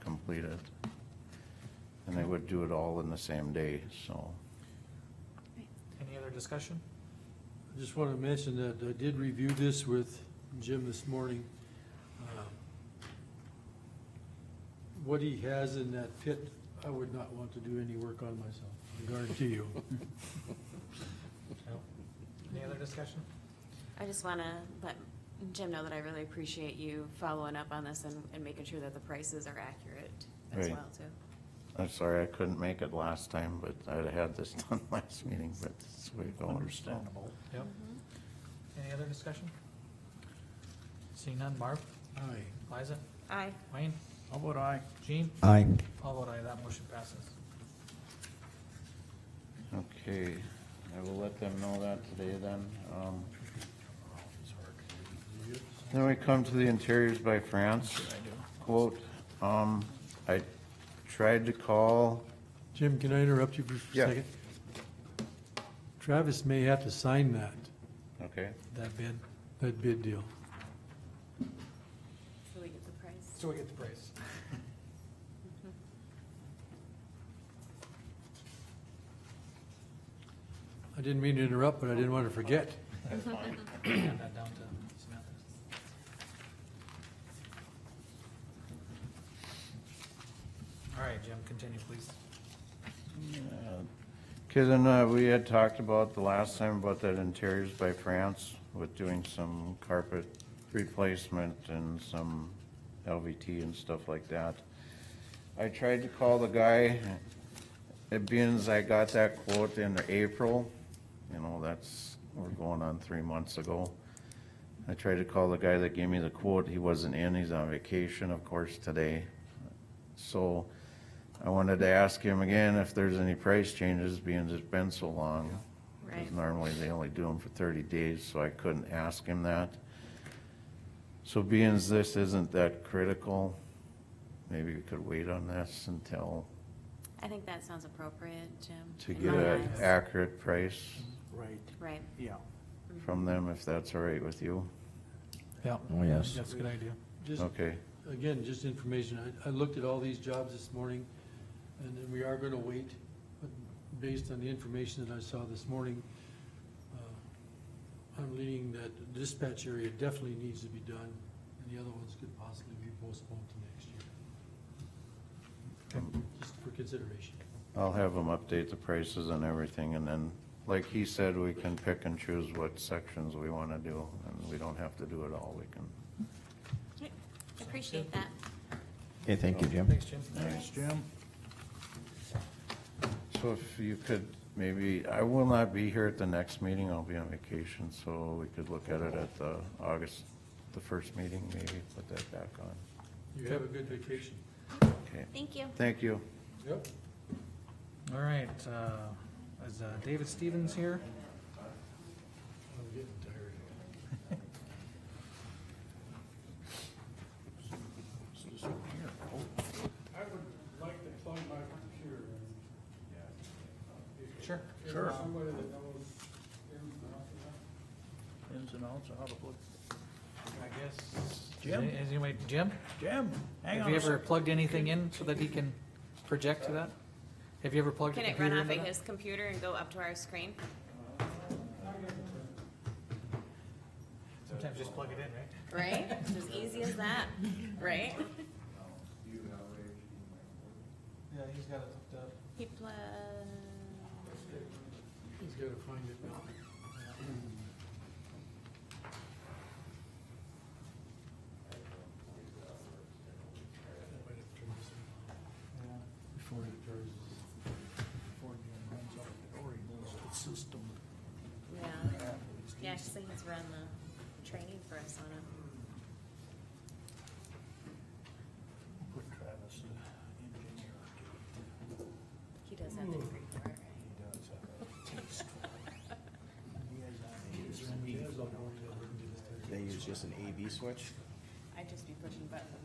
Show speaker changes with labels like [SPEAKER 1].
[SPEAKER 1] complete it. And they would do it all in the same day, so.
[SPEAKER 2] Any other discussion?
[SPEAKER 3] I just want to mention that I did review this with Jim this morning. Um, What he has in that pit, I would not want to do any work on myself, I guarantee you.
[SPEAKER 2] Any other discussion?
[SPEAKER 4] I just want to let Jim know that I really appreciate you following up on this and, and making sure that the prices are accurate as
[SPEAKER 1] Right.
[SPEAKER 4] well, too.
[SPEAKER 1] I'm sorry I couldn't make it last time, but I'd have had this done last meeting, but it's way going. Understandable.
[SPEAKER 2] Yep. Any other discussion? Seeing none, Marv,
[SPEAKER 3] Aye.
[SPEAKER 2] Liza,
[SPEAKER 4] Aye.
[SPEAKER 2] Wayne,
[SPEAKER 1] How about I?
[SPEAKER 2] Jean,
[SPEAKER 5] Aye.
[SPEAKER 2] all vote aye, that motion passes.
[SPEAKER 1] Okay, I will let them know that today then. Um, Then we come to the interiors by France quote. Um, I tried to call,
[SPEAKER 3] Jim, can I interrupt you for
[SPEAKER 1] Yeah.
[SPEAKER 3] a second? Travis may have to sign that,
[SPEAKER 1] okay,
[SPEAKER 3] that bid, that bid deal.
[SPEAKER 4] So we get the price.
[SPEAKER 2] So we get the praise.
[SPEAKER 3] I didn't mean to interrupt, but I didn't want to forget.
[SPEAKER 2] Hand that down to Samantha. All right, Jim, continue, please.
[SPEAKER 1] Because then uh, we had talked about the last time about that interiors by France with doing some carpet replacement and some LVT and stuff like that. I tried to call the guy, it being as I got that quote in April, you know, that's, we're going on three months ago. I tried to call the guy that gave me the quote, he wasn't in, he's on vacation, of course, today. So I wanted to ask him again if there's any price changes being it's been so long.
[SPEAKER 4] Right.
[SPEAKER 1] Because normally they only do them for thirty days, so I couldn't ask him that. So being as this isn't that critical, maybe we could wait on this until,
[SPEAKER 4] I think that sounds appropriate, Jim.
[SPEAKER 1] to
[SPEAKER 4] in
[SPEAKER 1] get
[SPEAKER 4] my
[SPEAKER 1] an
[SPEAKER 4] eyes.
[SPEAKER 1] accurate price
[SPEAKER 6] Right,
[SPEAKER 4] Right. Mm-hmm.
[SPEAKER 6] yeah.
[SPEAKER 1] from them, if that's all right with you.
[SPEAKER 2] Yeah.
[SPEAKER 5] Oh, yes.
[SPEAKER 2] That's a good idea.
[SPEAKER 3] Just
[SPEAKER 1] Okay,
[SPEAKER 3] again, just information, I, I looked at all these jobs this morning, and then we are gonna wait, but based on the information that I saw this morning, uh, I'm leaning that dispatch area definitely needs to be done, and the other ones could possibly be postponed to next year. Just for consideration.
[SPEAKER 1] I'll have them update the prices and everything, and then, like he said, we can pick and choose what sections we wanna do, and we don't have to do it all, we can.
[SPEAKER 4] Okay. Appreciate that.
[SPEAKER 5] Okay, thank you, Jim.
[SPEAKER 2] Thanks, Jim.
[SPEAKER 1] Thanks, Jim. So if you could, maybe, I will not be here at the next meeting, I'll be on vacation, so we could look at it at the August, the first meeting, maybe put that back on.
[SPEAKER 3] You have a good vacation.
[SPEAKER 1] Okay,
[SPEAKER 4] Thank you.
[SPEAKER 1] thank you.
[SPEAKER 3] Yep.
[SPEAKER 2] All right, uh, is uh, David Stevens here?
[SPEAKER 3] I'm getting tired. I would like to plug my computer
[SPEAKER 2] Sure.
[SPEAKER 3] Sure.
[SPEAKER 6] Ins and outs, how to put.
[SPEAKER 2] I guess.
[SPEAKER 6] Jim?
[SPEAKER 2] Is anybody, Jim?
[SPEAKER 6] Jim, hang
[SPEAKER 2] Have
[SPEAKER 6] on
[SPEAKER 2] you
[SPEAKER 6] a
[SPEAKER 2] ever
[SPEAKER 6] sec.
[SPEAKER 2] plugged anything in so that he can project to that? Have you ever plugged a
[SPEAKER 4] Can it
[SPEAKER 2] computer
[SPEAKER 4] run
[SPEAKER 2] into
[SPEAKER 4] off
[SPEAKER 2] that?
[SPEAKER 4] of his computer and go up to our screen?
[SPEAKER 2] Sometimes just plug it in, right?
[SPEAKER 4] Right? It's as easy as that, right?
[SPEAKER 2] Yeah, he's got it hooked up.
[SPEAKER 4] He pla-
[SPEAKER 3] He's gotta find it now. Before it turns.
[SPEAKER 4] yeah. Yeah, actually, he's run the training for us on it.
[SPEAKER 6] Put Travis, the engineer,
[SPEAKER 4] He does have the degree for it,
[SPEAKER 6] he
[SPEAKER 4] right?
[SPEAKER 6] does have a taste for it. He has ideas. They use just an A B switch?
[SPEAKER 4] I'd just be pushing buttons.